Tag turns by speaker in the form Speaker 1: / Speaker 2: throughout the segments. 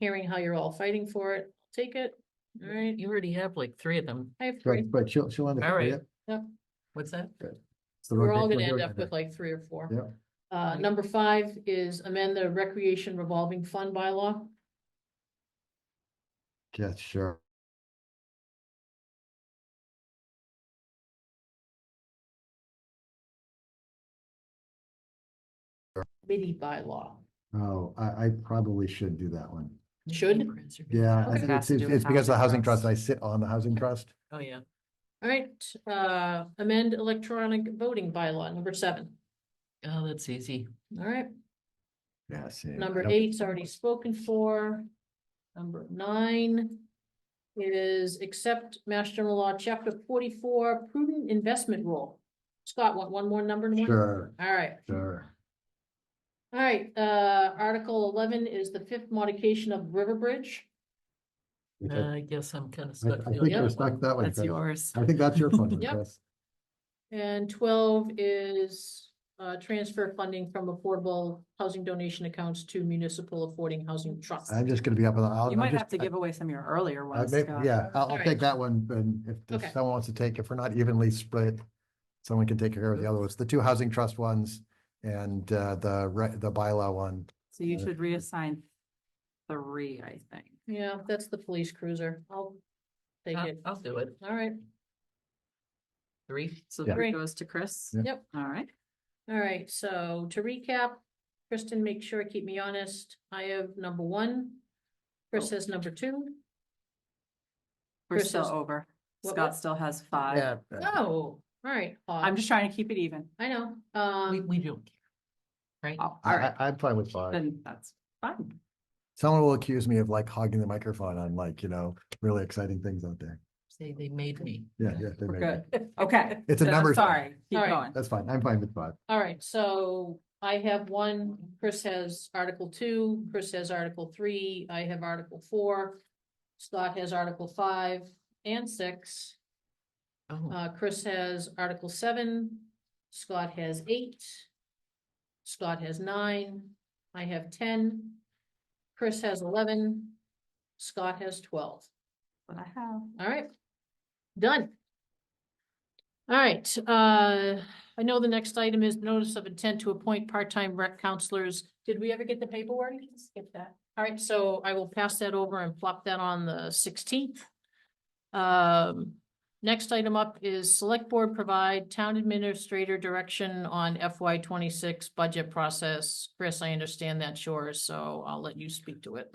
Speaker 1: hearing how you're all fighting for it, take it, all right?
Speaker 2: You already have like three of them.
Speaker 1: I have three,
Speaker 3: But, but she'll, she'll end up.
Speaker 2: All right.
Speaker 3: yeah,
Speaker 2: What's that?
Speaker 3: it's the wrong
Speaker 1: we're all
Speaker 3: thing
Speaker 1: gonna
Speaker 3: for
Speaker 1: end
Speaker 3: her
Speaker 1: up
Speaker 3: to
Speaker 1: with like three or four.
Speaker 3: Yeah.
Speaker 1: Uh, number five is amend the recreation revolving fund bylaw.
Speaker 3: do. Yeah, sure.
Speaker 1: MIDI bylaw.
Speaker 3: Oh, I, I probably should do that one.
Speaker 1: Should?
Speaker 3: Yeah,
Speaker 1: Okay.
Speaker 3: I think
Speaker 2: Has
Speaker 3: it's,
Speaker 2: to do
Speaker 3: it's
Speaker 2: with
Speaker 3: it's because of the
Speaker 2: housing
Speaker 3: housing
Speaker 2: trust.
Speaker 3: trust. I sit on the housing trust.
Speaker 2: Oh, yeah.
Speaker 1: All right, uh, amend electronic voting bylaw, number seven.
Speaker 2: Oh, that's easy.
Speaker 1: All right,
Speaker 3: Yeah, see. I
Speaker 1: number
Speaker 3: don't-
Speaker 1: eight's already spoken for. Number nine is accept Mass General Law, Chapter forty-four, prudent investment rule. Scott, want one more number? Norm?
Speaker 3: Sure,
Speaker 1: All right,
Speaker 3: sure.
Speaker 1: all right, uh, Article eleven is the fifth modification of River Bridge. Uh,
Speaker 3: Which I-
Speaker 2: Uh, I guess I'm kind of
Speaker 3: I
Speaker 2: stuck.
Speaker 3: I
Speaker 2: feeling
Speaker 3: think
Speaker 1: yeah.
Speaker 3: you're
Speaker 2: that
Speaker 3: stuck
Speaker 2: one.
Speaker 3: that way.
Speaker 2: That's
Speaker 3: Chris.
Speaker 2: yours.
Speaker 3: I think that's your phone,
Speaker 1: Yep.
Speaker 3: Chris.
Speaker 1: And twelve is, uh, transfer funding from affordable housing donation accounts to municipal affording housing trusts.
Speaker 3: I'm just gonna be up on the. I'll-
Speaker 4: You
Speaker 3: I'll
Speaker 4: might
Speaker 3: just-
Speaker 4: have to
Speaker 3: I-
Speaker 4: give away some of your earlier
Speaker 3: I
Speaker 4: ones.
Speaker 3: may-
Speaker 4: Scott.
Speaker 3: Yeah, I'll, I'll
Speaker 1: Alright.
Speaker 3: take that one, and if-
Speaker 1: Okay.
Speaker 3: if someone wants to take, if we're not evenly split, someone can take care of the other ones, the two housing trust ones and uh, the, re- the bylaw one.
Speaker 4: So you should reassign three, I think.
Speaker 1: Yeah, that's the police cruiser. I'll take
Speaker 2: I'll
Speaker 1: it.
Speaker 2: I'll do it.
Speaker 1: All right,
Speaker 2: Three.
Speaker 4: So
Speaker 3: Yeah.
Speaker 4: three
Speaker 1: Three.
Speaker 4: goes to Chris.
Speaker 3: Yeah.
Speaker 1: Yep.
Speaker 4: All right.
Speaker 1: all right. So to recap, Kristen, make sure, keep me honest. I have number one.
Speaker 2: Oh.
Speaker 1: Chris has number two.
Speaker 4: We're
Speaker 1: Chris
Speaker 4: still
Speaker 1: is-
Speaker 4: over.
Speaker 1: What-
Speaker 4: Scott
Speaker 1: what?
Speaker 4: still has five.
Speaker 3: Yeah.
Speaker 1: No, all right.
Speaker 4: I'm
Speaker 1: Hawk.
Speaker 4: just trying to keep it even.
Speaker 1: I know.
Speaker 2: Oh. We,
Speaker 1: Um,
Speaker 2: we don't care. Right?
Speaker 4: Oh, all
Speaker 3: I,
Speaker 4: right.
Speaker 3: I, am fine with five.
Speaker 4: Then that's fine.
Speaker 3: Someone will accuse me of like hogging the microphone on like, you know, really exciting things out there.
Speaker 2: Say they made me.
Speaker 3: Yeah, yeah. they may
Speaker 4: We're
Speaker 3: be.
Speaker 4: good. Okay.
Speaker 3: It's a
Speaker 4: Then I'm
Speaker 3: numbers thing.
Speaker 4: Sorry. Keep
Speaker 1: All right.
Speaker 4: going.
Speaker 3: That's fine. I'm fine with five.
Speaker 1: all right. So I have one, Chris has article two, Chris has article three, I have article four. Scott has article five and six.
Speaker 2: Oh,
Speaker 1: Uh, Chris has Article seven, Scott has eight, Scott has nine, I have ten, Chris has eleven, Scott has twelve.
Speaker 4: But I have.
Speaker 1: All right. Done. All right, uh, I know the next item is notice of intent to appoint part-time rec counselors. Did we ever get the paperwork? Skip that. All right, so I will pass that over and plop that on the sixteenth. Um, next item up is select board provide town administrator direction on FY twenty-six budget process. Chris, I understand that's yours, so I'll let you speak to it.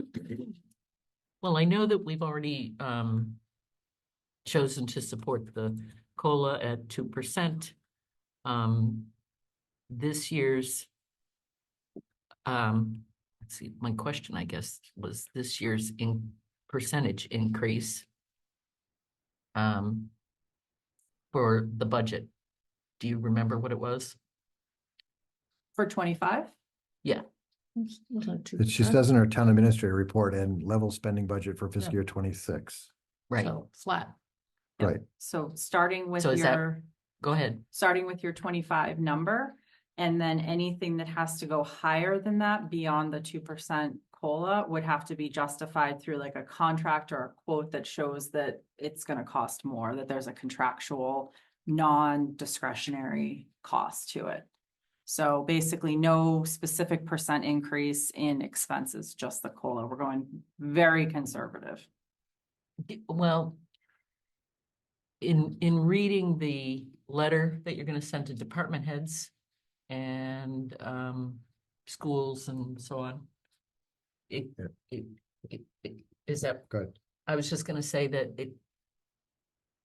Speaker 2: well, I know that we've already, um, chosen to support the COLA at two percent. Um, this year's, um, let's see, my question, I guess, was this year's in percentage increase um, for the budget. Do you remember what it was?
Speaker 4: For twenty-five?
Speaker 3: But She says in her town administrator report and level spending budget for fiscal year twenty-six.
Speaker 2: Right,
Speaker 1: So, Flat.
Speaker 4: Yep.
Speaker 3: Right.
Speaker 4: So starting with
Speaker 2: So is that-
Speaker 4: your,
Speaker 2: go ahead.
Speaker 4: starting with your twenty-five number. And then anything that has to go higher than that beyond the two percent COLA would have to be justified through like a contract or a quote that shows that it's gonna cost more, that there's a contractual, non-discretionary cost to it. So basically no specific percent increase in expenses, just the COLA. We're going very conservative.
Speaker 2: D- Well, in, in reading the letter that you're gonna send to department heads and, um, schools and so on, it,
Speaker 3: Yeah.
Speaker 2: it, it- it- is that?
Speaker 3: Go ahead.
Speaker 2: I was just gonna say that it,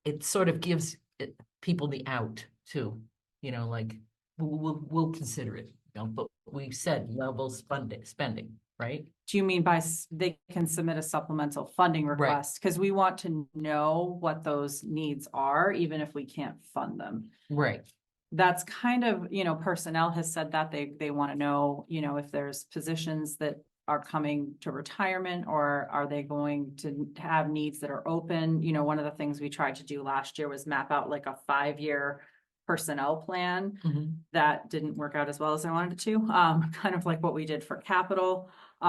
Speaker 2: it sort of gives it- people the out too, you know, like, we'll, we'll, we'll consider it, you know, but we said level spending, spending, right?
Speaker 4: Do you mean by s- they can submit a supplemental funding request? Because we want to know what those needs are, even if we can't fund them.
Speaker 2: Right.
Speaker 4: That's kind of, you know, personnel has said that they, they want to know, you know, if there's positions that are coming to retirement or are they going to have needs that are open? You know, one of the things we tried to do last year was map out like a five-year personnel plan
Speaker 2: Mhm.
Speaker 4: that didn't work out as well as I wanted it to, um, kind of like what we did for capital.